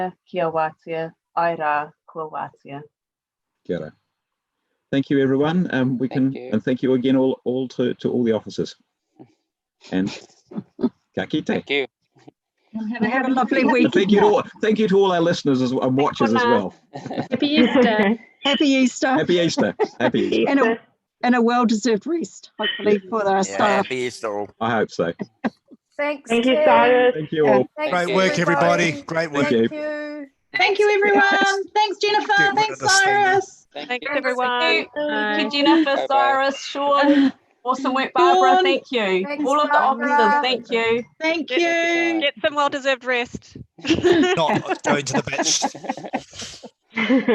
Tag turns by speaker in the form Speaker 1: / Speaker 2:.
Speaker 1: Kiawatia, Aira, Kuawatia.
Speaker 2: Kia ora. Thank you, everyone. Um, we can,
Speaker 3: Thank you.
Speaker 2: and thank you again, all, all to, to all the officers. And ka kite.
Speaker 3: Thank you.
Speaker 4: Have a, lovely week.
Speaker 2: And Thank you to all, thank you to all our listeners as, and watchers as well.
Speaker 5: Happy Easter.
Speaker 4: Happy Easter
Speaker 2: Happy Easter. Happy Easter.
Speaker 4: and a, and a well deserved rest, hopefully, for our
Speaker 6: Yeah,
Speaker 4: staff.
Speaker 6: happy Easter. all.
Speaker 2: I hope so.
Speaker 7: Thanks.
Speaker 5: Thank you,
Speaker 7: Kim.
Speaker 5: Cyrus.
Speaker 2: Thank you all.
Speaker 3: Great
Speaker 7: Thanks,
Speaker 8: Great work, everybody. Great work.
Speaker 2: Thank
Speaker 7: Thank
Speaker 2: you.
Speaker 7: you.
Speaker 9: Thank you, everyone. Thanks, Jennifer.
Speaker 8: Get rid of
Speaker 9: Thanks,
Speaker 8: this thing now.
Speaker 9: Cyrus.
Speaker 3: Thank you.
Speaker 1: everyone.
Speaker 5: Bye.
Speaker 1: Thank you, Jennifer,
Speaker 3: Bye-bye.
Speaker 1: Cyrus, Sean. Awesome work, Barbara.
Speaker 9: Sean.
Speaker 1: Thank you.
Speaker 7: Thanks,
Speaker 1: All of the officers,
Speaker 7: Barbara.
Speaker 1: thank you.
Speaker 9: Thank
Speaker 3: Thank you.
Speaker 9: you.
Speaker 3: Get
Speaker 9: some well deserved rest.
Speaker 8: Not going to the beach.